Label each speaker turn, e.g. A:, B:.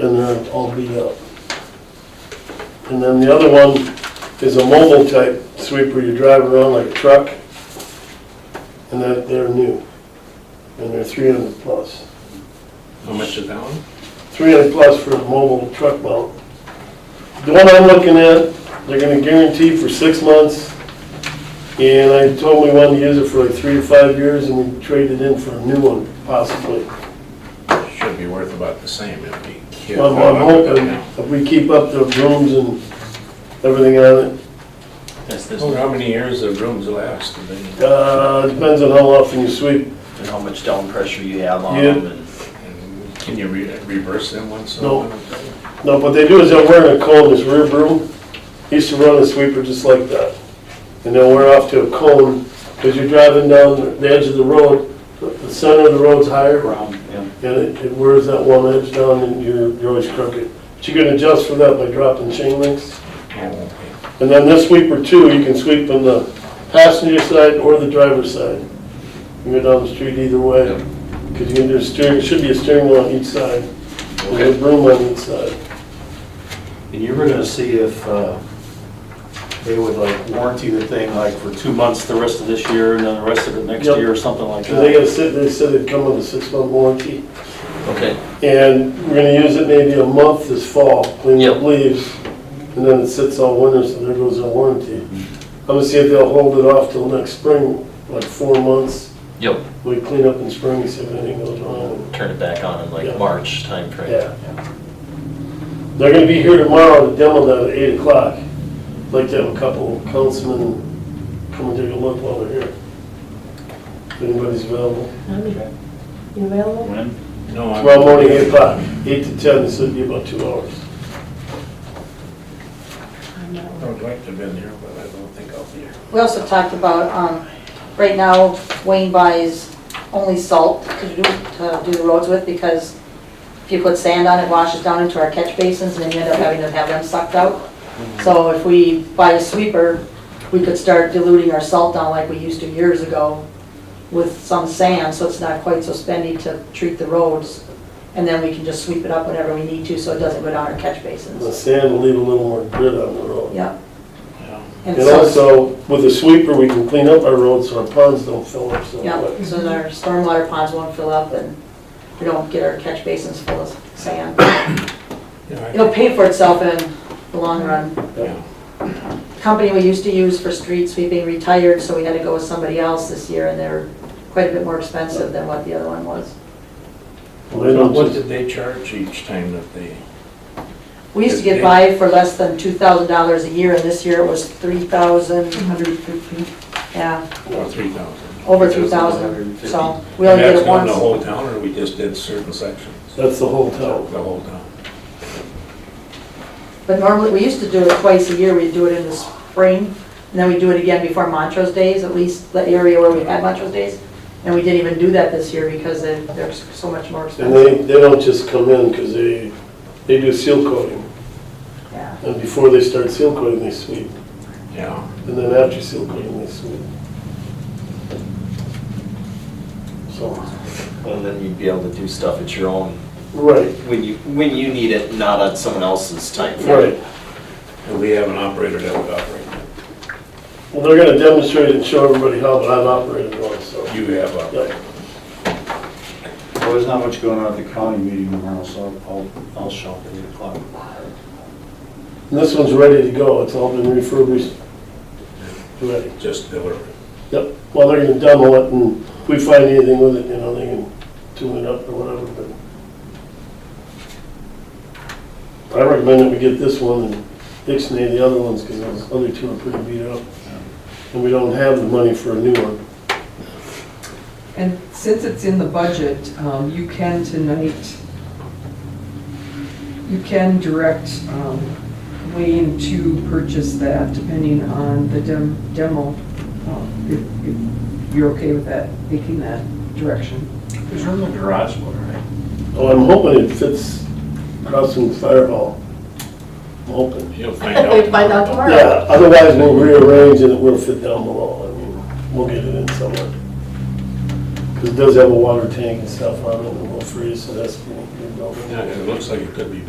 A: and they're all beat up. And then the other one is a mobile type sweeper, you drive around like a truck, and they're, they're new, and they're three hundred plus.
B: How much is that one?
A: Three hundred plus for a mobile truck mount. The one I'm looking at, they're gonna guarantee for six months, and I told him we wanted to use it for like three to five years, and we traded in for a new one possibly.
B: Should be worth about the same if we keep.
A: I'm I'm hoping if we keep up the rooms and everything on
C: That's this,
D: Oh,
B: Well,
C: one.
B: How many years the rooms last? and
A: it,
B: then-
A: uh, depends on how often you sweep.
C: and how much down pressure you have on
A: Yeah.
C: them, and
B: and Can you re- reverse them once? in a
A: No.
B: while?
A: No, what they do is they'll wear a cone, this rear broom, he used to run a sweeper just like that. And they'll wear off to a cone, because you're driving down the edge of the road, the- the center of the road's higher,
C: around, yeah.
A: and it it wears that one edge down and you're you're always crooked. But you can adjust for that by dropping chain links.
B: Oh,
A: And then this sweeper too, you can sweep on the passenger side or the driver's side. You can go down the street either way, because you can do a steering, should be a steering wheel on each side,
B: Okay.
A: and a broom on each side.
D: And you were gonna see if uh, they would like warranty the thing like for two months the rest of this year and then the rest of it next
A: Yep.
D: year or something like
A: Because they gotta
D: that.
A: sit, they said it'd come with a six-month warranty,
C: Okay.
A: and we're gonna use it maybe a month this fall, clean up
C: Yep.
A: leaves, and then it sits all winter, so there goes our warranty.
C: Mm-hmm.
A: I'm gonna see if they'll hold it off till next spring, like four months,
C: Yep.
A: we clean up in spring, see if anything goes wrong.
C: Turn it back on in
A: Yeah.
C: like March timeframe.
A: Yeah. They're gonna be here tomorrow to demo that at eight o'clock. I'd Like to have a couple councilmen come and take a look while they're here. If anybody's available.
E: You available?
C: When?
B: No, I'm-
A: Tomorrow morning, eight o'clock, eight to ten, this would be about two hours.
E: I'm not.
B: I would like to have been here, but I don't think I'll be here.
F: We also talked about, um, right now Wayne buys only salt to do, to do the roads with because if you put sand on it, washes down into our catch basins and then you end up having to have them sucked out. So if we buy a sweeper, we could start diluting our salt down like we used to years ago with some sand, so it's not quite so spendy to treat the roads. And then we can just sweep it up whenever we need to, so it doesn't go down our catch
A: The
F: basins.
A: sand will leave a little more grit on the road.
F: Yeah. And
A: And
F: so,
A: also, with a sweeper, we can clean up our roads so our ponds don't fill up so
F: yeah,
A: much.
F: so that our stormwater ponds won't fill up and we don't get our catch basins full of sand.
B: Yeah,
F: It'll pay for itself in the long run.
B: I- yeah.
F: Company we used to use for street sweeping retired, so we had to go with somebody else this year and they're quite a bit more expensive than what the other one was.
A: Well, they don't
B: What
A: just-
B: did they charge each time that they?
F: We used to get by for less than two thousand dollars a year and this year it was three thousand, yeah,
B: Or oh, three thousand?
F: over three thousand. So Oh, we only did it
B: That's not the
F: once.
B: whole town, or we just did certain sections?
A: That's the whole
B: The
A: town.
B: whole town.
F: But normally, we used to do it twice a year, we'd do it in the spring, and then we'd do it again before Montrose Days, at least the area where we had Montrose Days. And we didn't even do that this year because they- they're so much more
A: And
F: expensive.
A: they, they don't just come in because they, they do seal coating.
F: Yeah.
A: And before they start seal coating, they sweep.
B: Yeah.
A: And then after seal coating, they sweep. So,
C: And then you'd be able to do stuff at your own,
A: right,
C: when you, when you need it, not on someone else's timeframe.
A: right.
B: And we have an operator that would operate.
A: Well, they're gonna demonstrate and show everybody how, but I've operated one, so.
B: You have
A: Yeah.
B: operated.
D: Well, there's not much going on at the county meeting tomorrow, so I'll, I'll show up at eight o'clock.
A: And this one's ready to go, it's all been refurbished. Ready.
B: just deliver it.
A: Yep, well, they're gonna demo it and if we find anything with it, you know, they can tune it up or whatever, but. I recommend that we get this one and Dixney the other ones, cause those other two are pretty beat up. And we don't have the money for a new one.
G: And since it's in the budget, um, you can tonight, you can direct um, Wayne to purchase that depending on the dem- demo. um, If if you're okay with that, making that direction.
D: There's room in the garage, all right?
A: Oh, I'm hoping it fits crossing fire hall. I'm hoping.
B: You'll find out.
E: We find out tomorrow.
A: Yeah, otherwise we'll rearrange and it will fit down below. I mean, we'll get it in somewhere. Because it does have a water tank and stuff on it and it will freeze, so that's pretty good.
B: Yeah, it looks like it could be